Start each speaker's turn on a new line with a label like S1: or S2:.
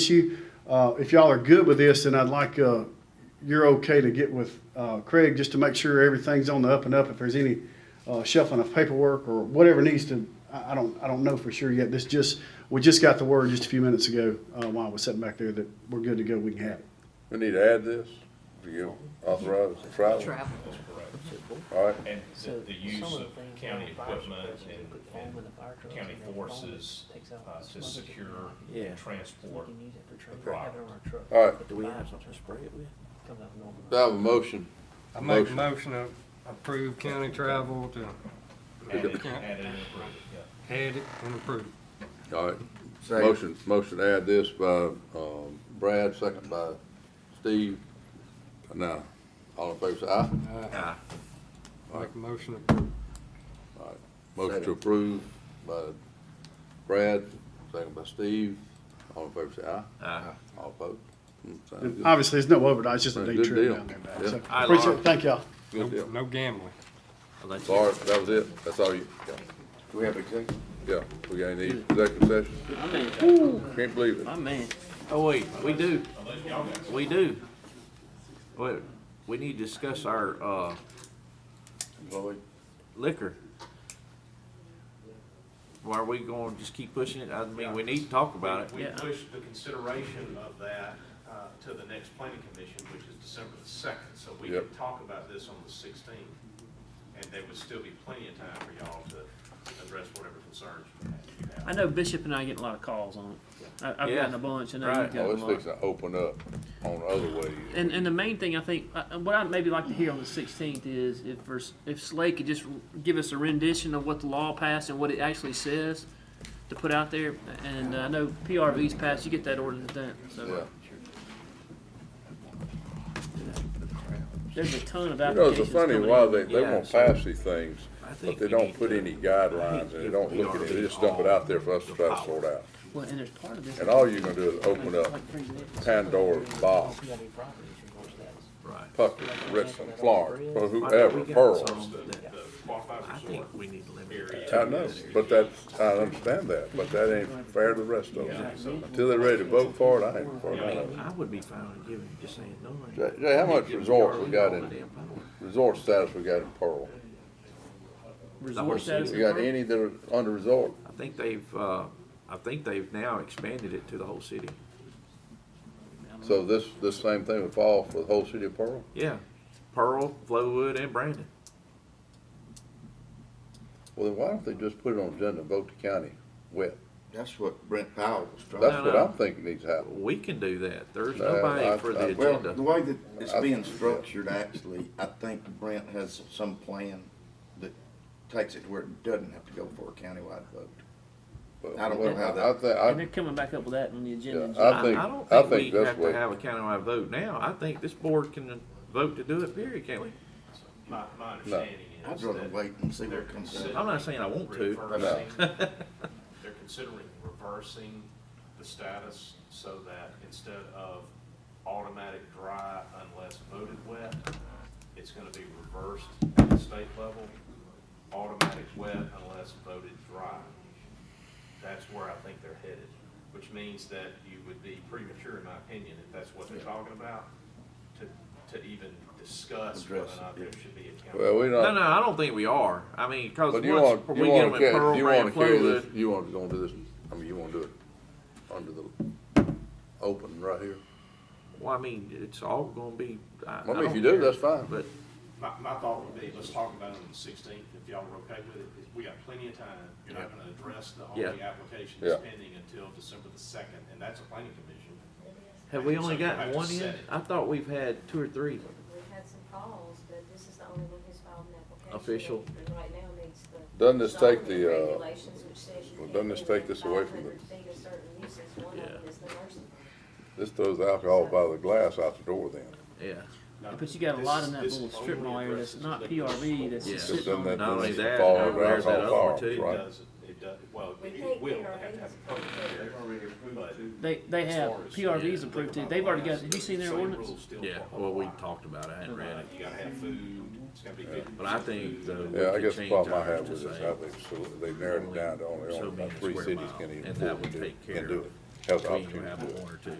S1: issue. Uh, If y'all are good with this, then I'd like, uh, you're okay to get with uh, Craig just to make sure everything's on the up and up. If there's any uh, shuffling of paperwork or whatever needs to, I I don't, I don't know for sure yet. This just, we just got the word just a few minutes ago uh, while I was sitting back there that we're good to go, we can have it.
S2: We need to add this, do you authorize the travel?
S3: travel.
S2: All right,
S4: And the,
S3: So
S4: the use
S3: some
S4: of
S3: the things
S4: county
S3: like the fire
S4: equipment
S3: suppression,
S4: and,
S3: they put foam in the fire
S4: and
S3: trucks
S4: county
S3: and they foam it,
S4: forces,
S3: takes out
S4: uh,
S3: the
S4: to
S3: smoke that you
S4: secure
S3: can
S5: Yeah.
S4: transport.
S3: So we can use it for training,
S4: product.
S3: have it on our truck.
S2: All right.
S3: If the
S5: Do we
S3: fire
S5: have something to spray it with?
S3: comes out normal.
S2: do I have a motion?
S6: I make a
S2: Motion.
S6: motion to approve county travel to
S4: Add it,
S6: Yeah.
S4: add it and approve it, yeah.
S6: add it and approve.
S2: All right, motion, motion to add this by, um, Brad, second by Steve. Now, all in favor, say aye.
S6: Aye. Make a motion to approve.
S2: All right, motion to approve by Brad, second by Steve, all in favor, say aye. Aye. All opposed? Mm, sounds
S1: And
S2: good.
S1: Obviously, there's no overnight, it's just a
S2: Right,
S1: day
S2: good
S1: trip
S2: deal.
S1: down there.
S2: Yeah.
S1: man. So,
S5: All right,
S1: Appreciate
S5: Laura.
S1: it, thank y'all.
S2: Good
S6: No
S2: deal.
S6: no gambling.
S2: Laura, that was it, that's all you, yeah,
S7: Do we have executive?
S2: yeah, we got any executive session,
S5: My man,
S2: can't believe it.
S5: my man. Oh, wait, we do, we do. Wait, we need to discuss our, uh,
S7: Lloyd?
S5: liquor. Why are we gonna just keep pushing it? I mean, we need to talk about
S4: We
S5: it.
S4: pushed the consideration of that, uh, to the next planning commission, which is December the second, so we
S2: Yep.
S4: could talk about this on the sixteenth. And there would still be plenty of time for y'all to address whatever concerns you have.
S8: I know Bishop and I get a lot of calls on it. I, I've
S5: Yeah.
S8: gotten a bunch, and I
S5: Right.
S8: have
S2: Oh,
S8: gotten
S2: it's
S8: a lot.
S2: fixing to open up on other ways.
S8: And, and the main thing I think, uh, what I'd maybe like to hear on the 16th is if vers- if Slay could just give us a rendition of what the law passed and what it actually says to put out there. And uh, I know PRV's passed, you get that ordinance done. So
S2: Yeah.
S8: there's a ton of
S2: You know,
S8: applications
S2: it's funny
S8: coming
S2: why
S8: in.
S2: they, they
S5: Yeah,
S2: won't
S5: so-
S2: pass these things,
S5: I
S2: but
S5: think
S2: they
S5: we
S2: don't
S5: need
S2: put
S5: to-
S2: any guidelines and they don't look at it, they just dump it out there for us to try to sort out.
S8: Well, and there's part of this.
S2: And all you're gonna do is open up Pandora's box,
S3: PRV properties resource status.
S5: Right.
S2: Puckett, Richmond, Florence, or whoever, Pearl.
S4: The qualified
S5: I
S4: resort
S5: think we need to limit it.
S2: I know, but that's, I understand that, but that ain't fair to the rest of them. Until they're ready to vote for it, I ain't for none of it.
S5: I would be fine with giving, just saying, no. money.
S2: Jay, Jay, how much
S5: Give
S2: resort we
S5: PRV
S2: got
S5: all
S2: in,
S5: the damn power.
S2: resort status we got in Pearl?
S8: Resort status.
S2: We got any that are under resort?
S5: I think they've, uh, I think they've now expanded it to the whole city.
S2: So this, this same thing would fall for the whole city of Pearl?
S5: Yeah, Pearl, Flowood, and Brandon.
S2: Well, then why don't they just put it on agenda and vote the county wet?
S7: That's what Brent Powell was trying.
S2: That's
S5: No,
S2: what
S5: no.
S2: I'm thinking needs to happen.
S5: We can do that. There's
S2: Uh, I-
S5: nobody for
S2: I-
S5: the
S7: Well, the
S5: agenda.
S7: way that it's
S2: I-
S7: being structured, actually, I think Brent has some plan that takes it to where it doesn't have to go for a countywide vote.
S2: But-
S7: I don't know how that-
S2: I think,
S8: And
S2: I,
S8: they're coming back up with that on the agenda.
S2: Yeah,
S8: in July.
S2: I think-
S5: don't
S2: I
S5: think
S2: think
S5: we
S2: that's
S5: have to
S2: what-
S5: have a countywide vote now. I think this board can vote to do it, period, can't we?
S4: My, my understanding is.
S7: I'd rather
S4: that-
S7: wait and see what comes out.
S5: I'm not saying I want to.
S7: uh,
S4: Reversing- They're considering reversing the status so that instead of automatic dry unless voted wet, it's gonna be reversed at the state level, automatic wet unless voted dry. That's where I think they're headed, which means that you would be premature, in my opinion, if that's what they're talking about, to, to even discuss whether or
S7: Address it,
S4: not there
S7: yeah.
S4: should be a count.
S2: well, we
S5: No,
S2: don't,
S5: no, I don't think we are. I mean, cause
S2: but
S5: once
S2: you want, you
S5: we get
S2: want
S5: them
S2: to
S5: in
S2: carry,
S5: Pearl,
S2: you want
S5: Brand,
S2: to carry this,
S5: Flowood,
S2: you want to go into this, I mean, you want to do it under the open right here?
S5: well, I mean, it's all gonna be. I
S2: Well, I mean, if
S5: don't
S2: you do,
S5: care.
S2: that's fine.
S5: But
S4: My, my thought would be, let's talk about it on the sixteenth, if y'all are okay with it, is we got plenty of time. You're not gonna address the only
S5: Yeah.
S4: application that's
S2: Yeah.
S4: pending until December the second, and that's a planning commission.
S5: have we
S4: So
S5: only
S4: you have
S5: got
S4: to
S5: one
S4: set
S5: yet?
S4: it.
S5: I thought we've had two or three.
S9: We've had some calls, but this is the only one who's filed an application.
S5: Official.
S9: And right now needs the.
S2: Doesn't this take the,
S9: zoning
S2: uh,
S9: regulations, which says you
S2: well,
S9: can't
S2: doesn't this
S9: do
S2: take
S9: more
S2: this
S9: than
S2: away from
S9: 500 feet of certain uses. One of
S5: Yeah.
S9: them is the nursing home.
S2: This throws alcohol by the glass out the door then.
S5: Yeah.
S4: No,
S8: But you got a
S4: this
S8: lot
S4: is-
S8: in that
S4: this
S8: little
S4: only
S8: strip mall area that's
S4: addresses
S8: not
S4: the-
S8: PRV that's
S5: Yeah.
S8: just
S2: Just doesn't
S8: sitting on
S2: that
S8: the.
S5: Not only
S2: just
S5: that,
S2: fall
S5: now
S2: over
S5: there's that
S2: alcohol
S5: other one
S2: fall,
S5: too.
S4: It
S2: right?
S4: does, it does, well,
S9: We
S4: it
S9: think
S4: will, they
S9: PRV
S4: have to have a
S9: is a public
S4: public
S9: hearing.
S4: hearing, but.
S8: They, they
S4: as
S8: have,
S4: far as-
S8: PRV's approved too. They've already got, have you seen their
S4: Same
S8: ordinance?
S4: rules still
S5: Yeah,
S4: apply.
S5: well, we talked about it, I hadn't read
S4: Uh,
S5: it.
S4: You gotta have food, it's gotta be good.
S5: But I think the-
S2: Yeah, I
S5: could
S2: guess the
S5: change
S2: problem I
S5: ours
S2: have
S5: to
S2: with this,
S5: say
S2: how they've, solu- they've narrowed it down to only,
S5: so
S2: only about
S5: many
S2: three
S5: square
S2: cities
S5: miles,
S2: can even
S5: and that
S2: afford
S5: would
S2: to do,
S5: take
S2: can
S5: care
S2: do
S5: of
S2: it. Health
S5: We ain't gonna
S2: opportunity.
S5: have but one or two.